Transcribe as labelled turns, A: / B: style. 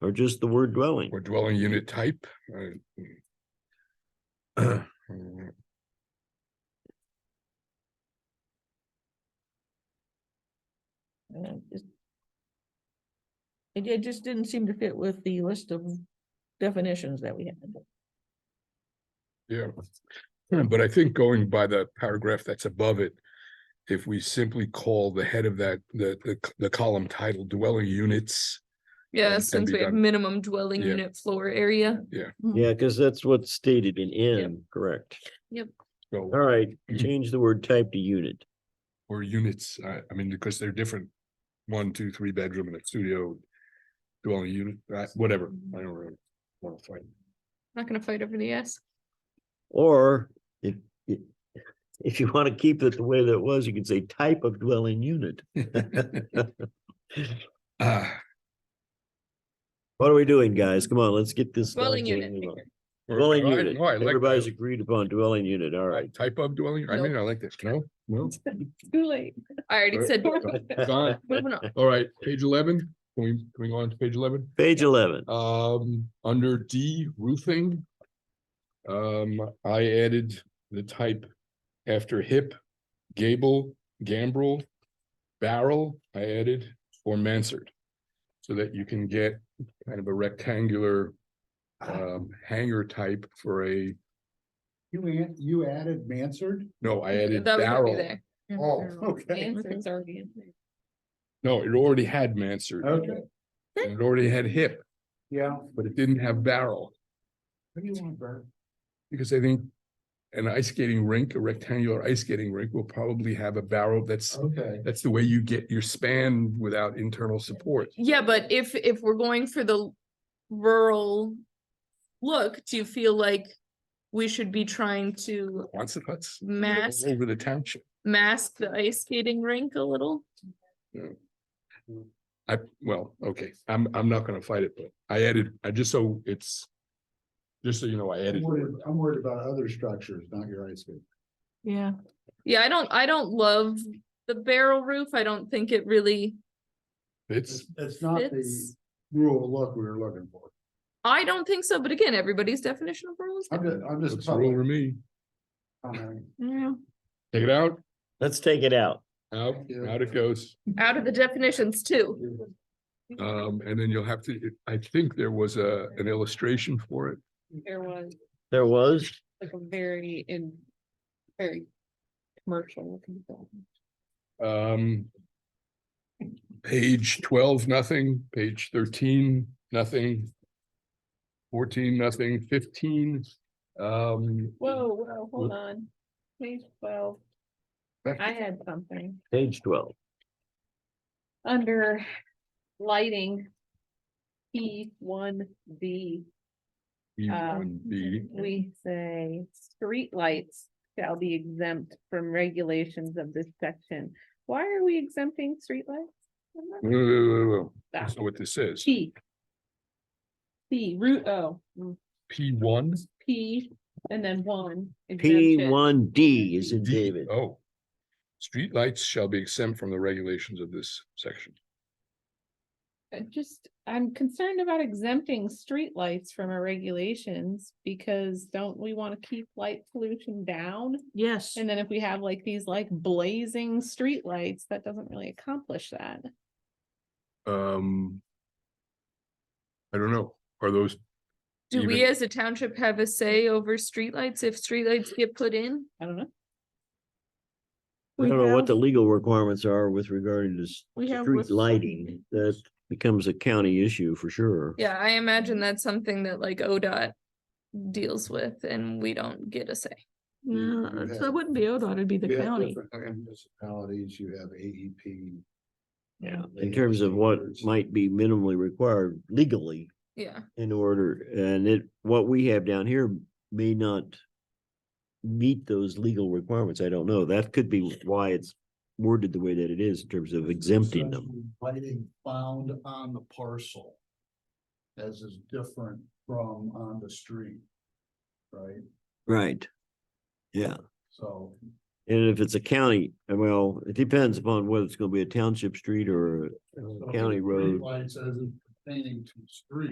A: or just the word dwelling?
B: or dwelling unit type. uh, mm.
C: Uh, just- It, it just didn't seem to fit with the list of definitions that we had.
B: Yeah, Yeah, but I think going by the paragraph that's above it, if we simply call the head of that, the, the, c- the column title dwelling units.
D: Yeah,
B: and
D: since
B: be
D: we have
B: done.
D: minimum dwelling
B: Yeah.
D: unit floor area.
A: Yeah, because that's what's stated in N, correct?
B: So,
A: All right, change the word type to unit.
B: or units, I, I mean, because they're different. One, two, three bedroom and a studio. Dwelling unit, uh, whatever, I don't really want to fight.
D: Not gonna fight over the S.
A: Or if, if, if you want to keep it the way that it was, you could say type of dwelling unit.
B: Uh,
A: What are we doing, guys? Come on, let's get this.
D: Dwelling
A: done so we can
D: unit,
A: move on.
D: okay.
A: Dwelling
B: I-
A: unit.
B: no, I like that.
A: Everybody's agreed upon dwelling unit. All right.
B: Type of dwelling, I mean, I like this, no, no,
C: Too late.
D: I already
B: Right.
D: said,
B: Fine.
D: moving on.
B: all right, page eleven, can we, can we go on to page eleven?
A: Page eleven.
B: Um, under D roofing. Um, I added the type after hip, gable, gambrel, barrel, I added or mansard. So that you can get kind of a rectangular um hanger type for a,
E: You, an- you added Mansard?
B: no, I added
D: That was
B: barrel.
D: already there.
E: Oh, okay.
D: Mansard's already in there.
B: No, it already had mansard.
E: Okay,
B: and It already had hip,
E: yeah.
B: but it didn't have barrel.
E: What do you want, Bert?
B: Because I think an ice skating rink, a rectangular ice skating rink will probably have a barrel that's,
E: Okay.
B: that's the way you get your span without internal support.
D: Yeah, but if, if we're going for the rural look, do you feel like we should be trying to
B: Quonset huts. all
D: mask,
B: Over the township.
D: mask the ice skating rink a little?
B: I, well, okay, I'm, I'm not gonna fight it, but I added, I just so it's, just so you know, I
E: I'm
B: added.
E: worried, I'm worried about other structures, not your ice cream.
D: Yeah. Yeah, I don't, I don't love the barrel roof. I don't think it really
B: It's,
E: It's not the
D: fits.
E: rural look we were looking for.
D: I don't think so, but again, everybody's definition of rules.
E: I'm just, I'm
B: it's
E: just.
B: rule to me.
E: commenting.
D: Yeah,
B: Take it out,
A: Let's take it out.
B: out, out it goes.
D: out of the definitions too.
B: Um, and then you'll have to, I think there was a, an illustration for it.
F: There was
A: There was,
F: like a very in, very commercial looking building.
B: Um. Page twelve, nothing, page thirteen, nothing. Fourteen, nothing, fifteen, um.
F: Whoa, whoa,
B: hold
F: hold on. Page twelve, I had something.
A: page twelve.
F: under lighting. P one B,
D: Uh,
B: E1, B,
F: we say street lights shall be exempt from regulations of this section. Why are we exempting streetlights? I'm not-
B: whoa, whoa, whoa, whoa,
F: Ah,
B: That's not what this is,
F: P. P, root O, mm,
B: P one.
F: P, and then one.
A: P
F: exemption.
A: one D is in
B: D-
A: David.
B: Oh. Streetlights shall be exempt from the regulations of this section.
F: I just, I'm concerned about exempting streetlights from our regulations because don't we want to keep light pollution down?
C: Yes.
F: And then if we have like these like blazing streetlights, that doesn't really accomplish that.
B: Um. I don't know, are those,
D: Do we
B: Even-
D: as a township have a say over streetlights if streetlights get put in?
F: I don't know.
A: I don't know what the legal requirements are with regarding to s-
C: We have
A: street
C: with-
A: lighting. That becomes a county issue for sure.
D: Yeah, I imagine that's something that like ODOT deals with and we don't get a say.
E: You-
C: Yeah,
E: you
C: so
E: have-
C: it wouldn't be ODOT, it'd be the
E: you have
C: county.
E: different Municipalities, you have E AEP.
C: Yeah.
A: In terms of what might be minimally required legally
D: Yeah,
A: in order, and it, what we have down here may not. Meet those legal requirements. I don't know. That could be why it's worded the way that it is in terms of exempting them.
E: Lighting found on the parcel. As is different from on the street. Right,
A: Right. Yeah.
E: so.
A: And if it's a county, uh, well, it depends upon whether it's gonna be a township street or a- a county road.
E: Lights as pertaining to street.